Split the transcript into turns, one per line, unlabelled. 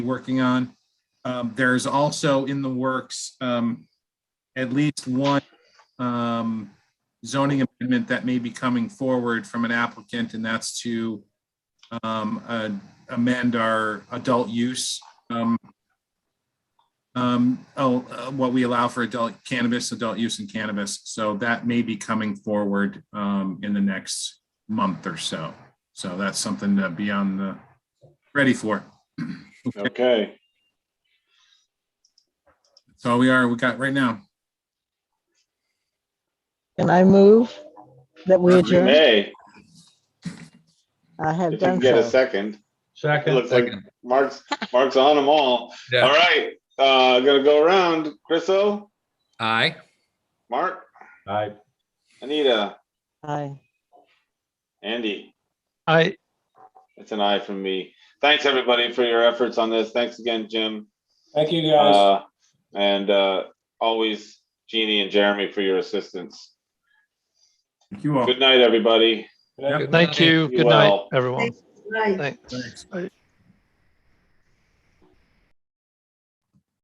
working on. Um, There's also in the works um, at least one um, zoning amendment that may be coming forward from an applicant, and that's to um, uh, amend our adult use. um, um, oh, uh, What we allow for adult cannabis, adult use in cannabis. So that may be coming forward um, in the next month or so. So that's something to be on the, ready for.
Okay,
That's all we are, we got right now.
Can I move that we
Perfect.
adjourn?
hey,
I
if
have
you can
done
get a
so.
second, it
Second,
looks like Mark's, Mark's on them all. All
Yeah.
right, uh, gonna go around. Chriso,
Aye.
Mark,
aye.
Anita,
Aye.
Andy.
I,
It's an eye from me. Thanks, everybody, for your efforts on this. Thanks again, Jim.
Thank you, guys.
Uh, and, uh, always Jeannie and Jeremy for your assistance.
Thank
Oh.
you all.
Good night, everybody.
Good night.
thank you.
You
Good night,
all.
everyone.
Right.
Thanks.
Thanks.
Bye.